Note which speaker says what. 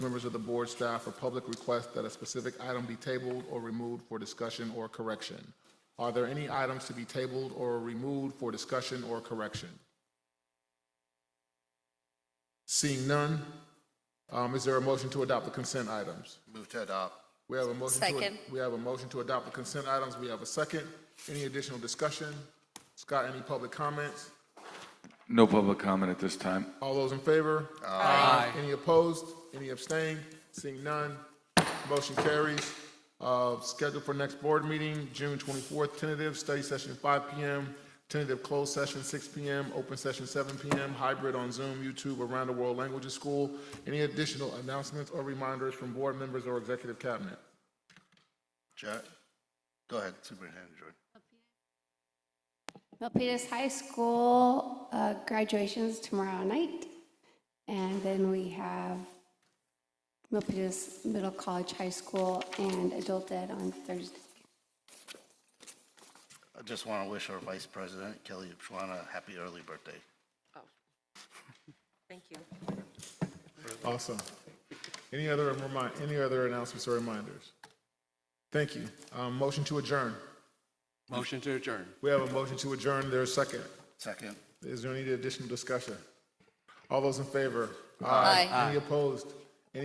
Speaker 1: members of the board, staff, or public request that a specific item be tabled or removed for discussion or correction. Are there any items to be tabled or removed for discussion or correction? Seeing none, um, is there a motion to adopt the consent items?
Speaker 2: Move to adopt.
Speaker 1: We have a motion to.
Speaker 3: Second.
Speaker 1: We have a motion to adopt the consent items. We have a second. Any additional discussion? Scott, any public comments?
Speaker 4: No public comment at this time.
Speaker 1: All those in favor? Aye. Any opposed? Any abstained? Seeing none, motion carries. Uh, Scheduled for next board meeting, June 24th, tentative, study session 5 PM, tentative closed session 6 PM, open session 7 PM, hybrid on Zoom, YouTube, Around the World Languages School. Any additional announcements or reminders from board members or executive cabinet?
Speaker 2: Jack? Go ahead, Superintendent Jordan.
Speaker 5: Milpitas High School uh, graduations tomorrow night. And then we have Milpitas Middle College High School and Adult Ed on Thursday.
Speaker 2: I just want to wish our Vice President, Kelly Upshawana, a happy early birthday.
Speaker 3: Thank you.
Speaker 1: Awesome. Any other remind, any other announcements or reminders? Thank you. Um, Motion to adjourn.
Speaker 6: Motion to adjourn.
Speaker 1: We have a motion to adjourn. There's a second.
Speaker 2: Second.
Speaker 1: Is there any additional discussion? All those in favor?
Speaker 3: Aye.
Speaker 1: Any opposed?